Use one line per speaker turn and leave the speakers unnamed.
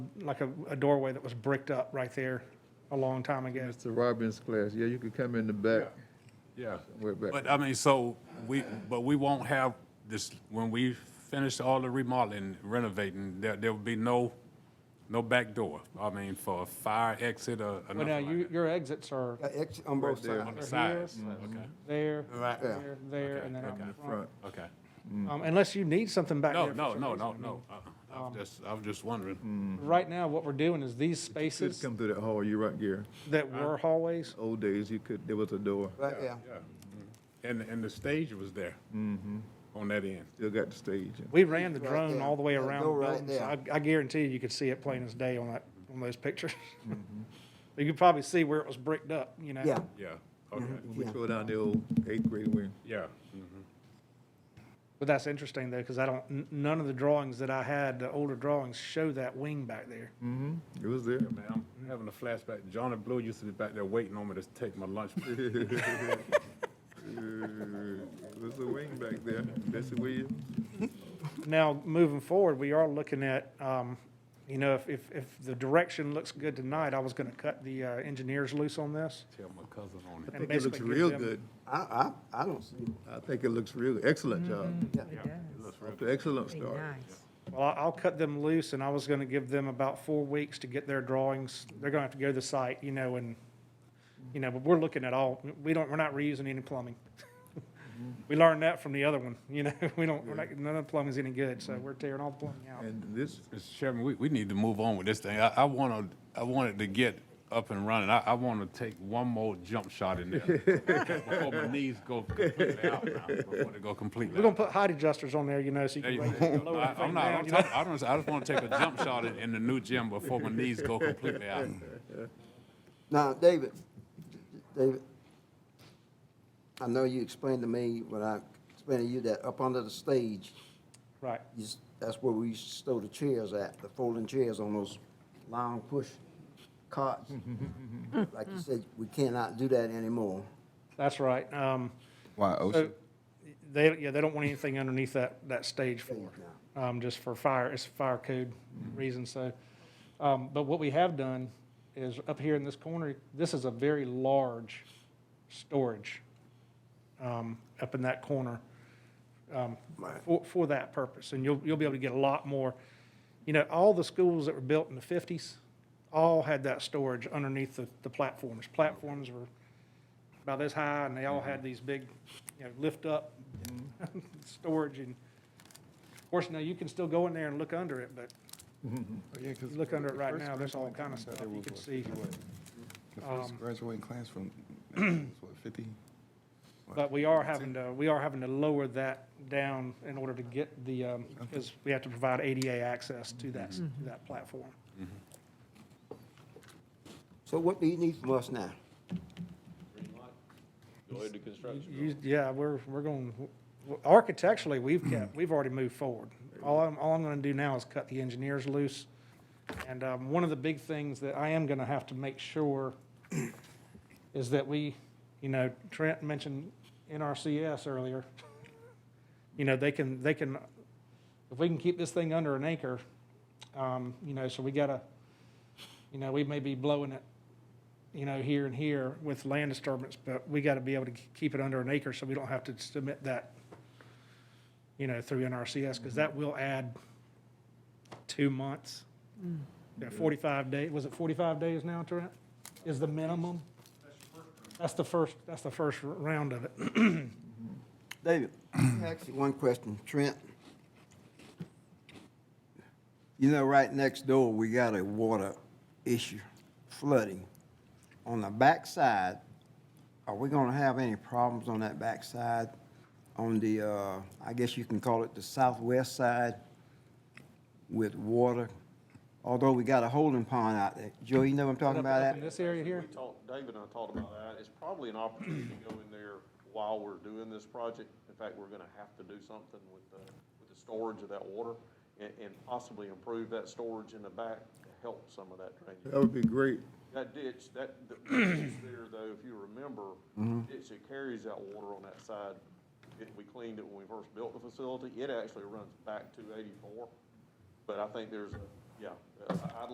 like a, a doorway that was bricked up right there a long time ago.
Mr. Robbins' class, yeah, you could come in the back,
Yeah.
way back.
But I mean, so we, but we won't have this, when we finish all the remodeling, renovating, there, there will be no, no back door. I mean, for a fire exit or, or
But now,
nothing like
you, your exits are
Uh, ex- On both
there.
that. On
sides.
the
here. Mm-hmm.
sides, okay,
there,
Right. Yeah.
there, there,
Okay,
and then out
okay.
in front.
Front,
okay.
Mm.
Um, Unless you need something back
No,
there. for
no,
some
no,
reason. Um,
no, no. Uh-uh. I- I'm just, I'm just wondering.
Right now, what we're doing is these
could
spaces
come through that hall, you're right, Gary.
that were hallways,
Old days, you could, there was a door,
Right, yeah.
And, and the stage was there.
Mm-hmm.
On that end.
still got the stage. and-
we ran the
Right
drone
there.
all the way
That
around
door
the
right
building. So I I guarantee you, you could see it plain as day on that, on those pictures. You could probably see where it was bricked up, you know?
Mm-hmm. Yeah,
Yeah, okay,
Mm-hmm.
When we
Yeah.
throw down the old eighth grade wing,
yeah.
But that's interesting though, because I don't, n- none of the drawings that I had, the older drawings, show that wing back there.
mm-hmm, it was there.
Man, I'm having a flashback. Johnny Blue used to be back there waiting on me to take my lunch.
Uh, It was a wing back there, Bessie Williams.
Now, moving forward, we are looking at, um, you know, if, if, if the direction looks good tonight, I was gonna cut the, uh, engineers loose on this.
Tell my cousin on it.
I
and
think it looks
basically give
real
them-
good,
I, I, I don't see it.
I think it looks real, excellent job,
Mm-hmm. Yeah.
excellent
Be
start.
nice.
Well, I- I'll cut them loose and I was gonna give them about four weeks to get their drawings. They're gonna have to go to the site, you know, and, you know, but we're looking at all, we don't, we're not reusing any plumbing.
Mm-hmm.
We learned that from the other one, you know, we don't, we're not, none of the plumbing's any good,
Mm-hmm.
so we're tearing all the plumbing out.
And this,
Mr. Chairman, we, we need to move on with this thing. I, I wanna, I wanted to get up and running. I, I wanna take one more jump shot in there. Before my knees go completely out now, before they go
We're
completely
gonna
out.
put height adjusters on there, you know, so you
There
can
you
raise it,
go.
lower
I-
the
I'm
thing
not,
down,
I'm
you know?
talking- I don't, I just wanna take a jump shot in, in the new gym before my knees go completely out.
Now, David, David, I know you explained to me, when I explained to you that up under the stage,
Right,
you s- that's where we used to stow the chairs at, the folding chairs on those long push carts. Like you said, we cannot do that anymore.
that's right. Um,
Why
so
OSHA?
they, yeah, they don't want anything underneath that, that stage floor, um, just for fire, it's fire code reasons, so. Um, but what we have done is up here in this corner, this is a very large storage, um, up in that corner, um, for, for that purpose. And you'll, you'll be able to get a lot more. You know, all the schools that were built in the fifties all had that storage underneath the, the platforms. Platforms were about this high, and they all had these big, you know, lift-up storage, and of course, now you can still go in there and look under it, but if you look under it right now, there's all kind of stuff you can see.
The
um,
first graduating class from, what, 50?
But we are having to, we are having to lower that down in order to get the, um, because we have to provide ADA access to that, to that platform.
So what do you need from us now?
You- Yeah, we're, we're going, architecturally, we've kept, we've already moved forward. All I'm, all I'm gonna do now is cut the engineers loose. And, um, one of the big things that I am gonna have to make sure is that we, you know, Trent mentioned NRCS earlier. You know, they can, they can, if we can keep this thing under an acre, um, you know, so we gotta, you know, we may be blowing it you know, here and here with land disturbance, but we got to be able to k- keep it under an acre so we don't have to submit that, you know, through NRCS, because that will add two months.
Mm.
Yeah, forty-five day, was it forty-five days now, Trent? Is the minimum? That's the first, that's the first r- round of it.
David, actually, one question, Trent. You know, right next door, we got a water issue, flooding. On the backside, are we gonna have any problems on that backside? On the, uh, I guess you can call it the southwest side with water? Although we got a holding pond out there. Joe, you know what I'm talking about
In
that?
this area here?
We talked, David and I talked about that. It's probably an opportunity to go in there while we're doing this project. In fact, we're gonna have to do something with the, with the storage of that water and, and possibly improve that storage in the back to help some of that drainage.
that would be great,
That ditch, that, the ditch there though, if you remember, the ditch that carries that water on that side, it, we cleaned it when we first built the facility. It actually runs back to eighty-four. But I think there's, a yeah, I- I'd